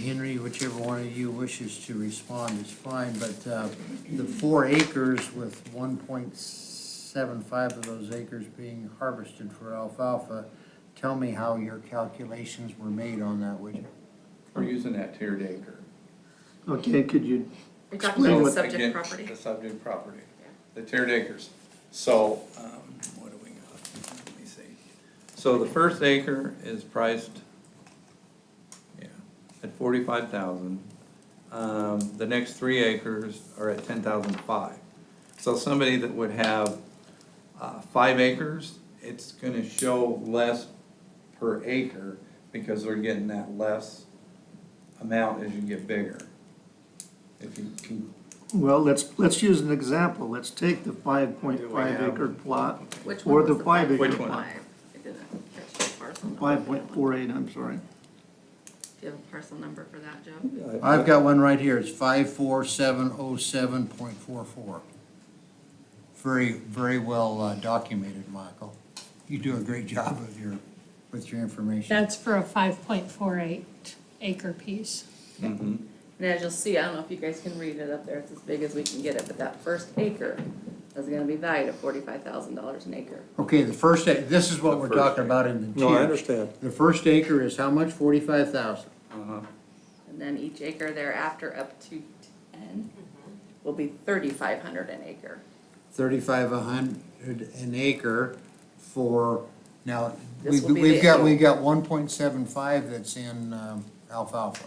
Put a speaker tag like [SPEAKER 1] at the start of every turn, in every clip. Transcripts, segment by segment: [SPEAKER 1] Henry, whichever one of you wishes to respond is fine, but uh, the four acres with one point seven five of those acres being harvested for alfalfa, tell me how your calculations were made on that, would you?
[SPEAKER 2] We're using that tiered acre.
[SPEAKER 3] Okay, could you,
[SPEAKER 4] You're talking about the
[SPEAKER 3] Explain
[SPEAKER 4] subject
[SPEAKER 2] Again,
[SPEAKER 4] property.
[SPEAKER 2] The subject property, the tiered acres. So, um, what do we got? Let me see. So the first acre is priced, yeah, at forty-five thousand. Um, the next three acres are at ten thousand five. So somebody that would have, uh, five acres, it's gonna show less per acre because they're getting that less amount as you get bigger. If you can
[SPEAKER 3] well, let's, let's use an example. Let's take the five point five acre plot,
[SPEAKER 4] Which
[SPEAKER 3] or
[SPEAKER 4] one
[SPEAKER 3] the
[SPEAKER 4] was
[SPEAKER 3] five
[SPEAKER 4] the five?
[SPEAKER 3] acre
[SPEAKER 2] Which one?
[SPEAKER 3] plot.
[SPEAKER 4] Five. I didn't catch the parcel number.
[SPEAKER 3] Five point four eight, I'm sorry.
[SPEAKER 4] Do you have a parcel number for that, Joe?
[SPEAKER 1] I've got one right here, it's five four seven oh seven point four four. Very, very well uh, documented, Michael. You do a great job of your, with your information.
[SPEAKER 5] That's for a five point four eight acre piece.
[SPEAKER 4] And as you'll see, I don't know if you guys can read it up there, it's as big as we can get it, but that first acre is gonna be valued at forty-five thousand dollars an acre.
[SPEAKER 1] Okay, the first, ac- this is what we're talking about in the tiers.
[SPEAKER 6] No, I understand.
[SPEAKER 1] The first acre is how much? Forty-five thousand.
[SPEAKER 2] Uh-huh.
[SPEAKER 4] And then each acre thereafter up to ten will be thirty-five hundred an acre.
[SPEAKER 1] Thirty-five a hundred an acre for, now,
[SPEAKER 4] This
[SPEAKER 1] we've,
[SPEAKER 4] will be
[SPEAKER 1] we've
[SPEAKER 4] the
[SPEAKER 1] got,
[SPEAKER 4] annual.
[SPEAKER 1] we've got one point seven five that's in um, alfalfa.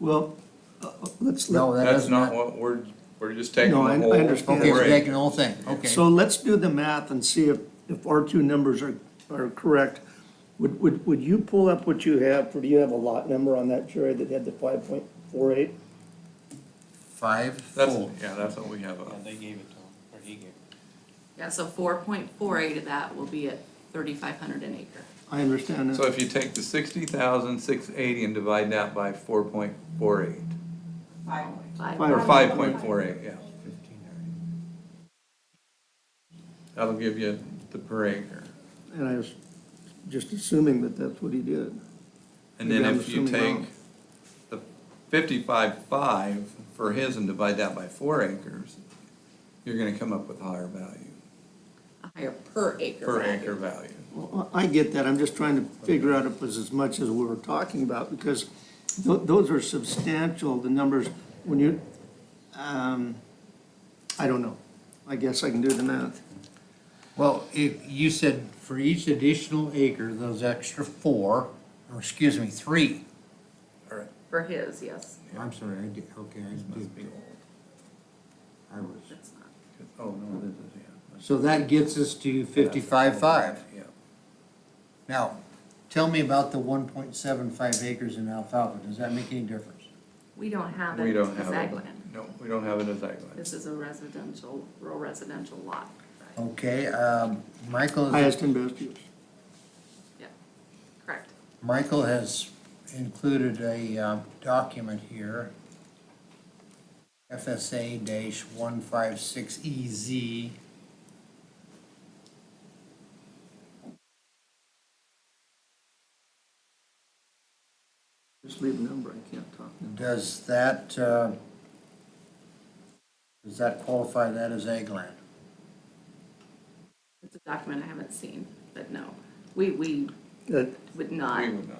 [SPEAKER 3] Well, uh, uh, let's,
[SPEAKER 1] No,
[SPEAKER 3] let-
[SPEAKER 1] that
[SPEAKER 2] That's
[SPEAKER 1] doesn't.
[SPEAKER 2] not what we're, we're just taking the
[SPEAKER 3] No,
[SPEAKER 2] whole.
[SPEAKER 3] I- I understand.
[SPEAKER 1] Okay, we're
[SPEAKER 2] rate.
[SPEAKER 1] taking the whole thing, okay.
[SPEAKER 3] so let's do the math and see if, if our two numbers are, are correct. Would, would, would you pull up what you have, or do you have a lot number on that, Jerry, that had the five point four eight?
[SPEAKER 1] Five,
[SPEAKER 2] That's,
[SPEAKER 1] full.
[SPEAKER 2] yeah, that's what we have. uh, up.
[SPEAKER 7] they gave it to him, or he gave it.
[SPEAKER 4] Yeah, so four point four eight of that will be at thirty-five hundred an acre.
[SPEAKER 3] I understand
[SPEAKER 2] So
[SPEAKER 3] that.
[SPEAKER 2] if you take the sixty thousand, six eighty and divide that by four point four eight, or five point four eight, yeah. That'll give you the per acre.
[SPEAKER 3] And I was just assuming that that's what he did.
[SPEAKER 2] And then
[SPEAKER 3] Maybe I'm
[SPEAKER 2] if you
[SPEAKER 3] assuming
[SPEAKER 2] take
[SPEAKER 3] wrong.
[SPEAKER 2] the fifty-five five for his and divide that by four acres, you're gonna come up with a higher value,
[SPEAKER 4] A higher per acre.
[SPEAKER 2] per
[SPEAKER 4] value.
[SPEAKER 2] acre value.
[SPEAKER 3] Well, I get that, I'm just trying to figure out if it was as much as we were talking about, because tho- those are substantial, the numbers, when you, um, I don't know. I guess I can do the math.
[SPEAKER 1] Well, if, you said for each additional acre, those extra four, or excuse me, three.
[SPEAKER 2] All right,
[SPEAKER 4] For his, yes,
[SPEAKER 1] I'm sorry, I did, okay, I
[SPEAKER 2] must be
[SPEAKER 1] did,
[SPEAKER 2] old.
[SPEAKER 1] I was.
[SPEAKER 4] that's not,
[SPEAKER 2] Oh, no, this is, yeah.
[SPEAKER 1] So that gets us to fifty-five five.
[SPEAKER 2] Yeah.
[SPEAKER 1] Now, tell me about the one point seven five acres in alfalfa, does that make any difference?
[SPEAKER 4] we don't have
[SPEAKER 2] We
[SPEAKER 4] it
[SPEAKER 2] don't
[SPEAKER 4] as
[SPEAKER 2] have
[SPEAKER 4] ag
[SPEAKER 2] it.
[SPEAKER 4] land.
[SPEAKER 2] No, we don't have it as ag land.
[SPEAKER 4] This is a residential, rural residential lot.
[SPEAKER 2] Oh.
[SPEAKER 1] Okay, um, Michael, is-
[SPEAKER 3] Highest and best use.
[SPEAKER 4] Yeah, correct.
[SPEAKER 1] Michael has included a, um, document here. FSA dash one five six E EZ.
[SPEAKER 3] Just leave a number, I can't talk.
[SPEAKER 1] Does that, uh, does that qualify that as ag land?
[SPEAKER 4] It's a document I haven't seen, but no, we, we
[SPEAKER 6] Uh,
[SPEAKER 3] That-
[SPEAKER 4] would
[SPEAKER 2] We
[SPEAKER 4] not
[SPEAKER 2] would not.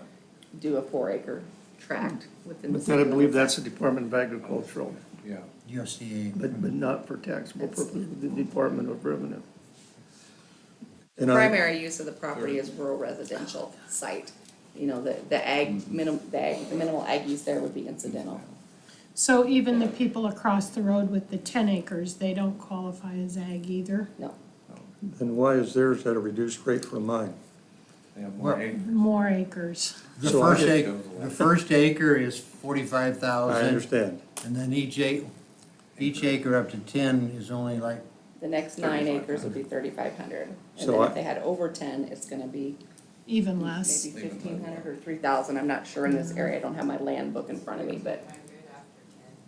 [SPEAKER 4] do a four acre tract within the.
[SPEAKER 3] But then I
[SPEAKER 4] city
[SPEAKER 3] believe
[SPEAKER 4] limits.
[SPEAKER 3] that's the Department of Agricultural,
[SPEAKER 2] Yeah.
[SPEAKER 1] USDA.
[SPEAKER 3] but, but not for taxable purposes, the Department of Revenue. And I-
[SPEAKER 4] Primary use of the property is rural residential site. You know, the, the ag,
[SPEAKER 2] Mm-hmm.
[SPEAKER 4] minim, the ag, the minimal ag use there would be incidental.
[SPEAKER 5] So even the people across the road with the ten acres, they don't qualify as ag either.
[SPEAKER 4] No,
[SPEAKER 6] Then why is theirs at a reduced rate from mine?
[SPEAKER 2] They have more
[SPEAKER 1] Well-
[SPEAKER 2] acre.
[SPEAKER 5] More acres.
[SPEAKER 1] The
[SPEAKER 6] So I
[SPEAKER 1] first
[SPEAKER 6] get-
[SPEAKER 1] acre, the first acre is forty-five
[SPEAKER 6] I
[SPEAKER 1] thousand.
[SPEAKER 6] understand.
[SPEAKER 1] And then each acre, each acre up to ten is only like,
[SPEAKER 4] the next nine acres would be thirty-five hundred. And
[SPEAKER 6] So
[SPEAKER 4] then
[SPEAKER 6] I-
[SPEAKER 4] if they had over ten, it's gonna be
[SPEAKER 5] Even less.
[SPEAKER 4] maybe fifteen hundred or three thousand, I'm not sure in this area, I don't have my land book in front of me, but.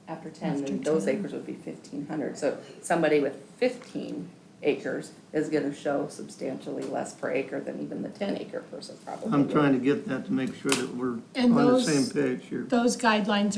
[SPEAKER 4] After ten, then those acres would be fifteen hundred, so somebody with fifteen acres is gonna show substantially less per acre than even the ten acre person probably.
[SPEAKER 3] I'm
[SPEAKER 4] would.
[SPEAKER 3] trying to get that to make sure that we're
[SPEAKER 5] And
[SPEAKER 3] on the
[SPEAKER 5] those-
[SPEAKER 3] same page here.
[SPEAKER 5] Those guidelines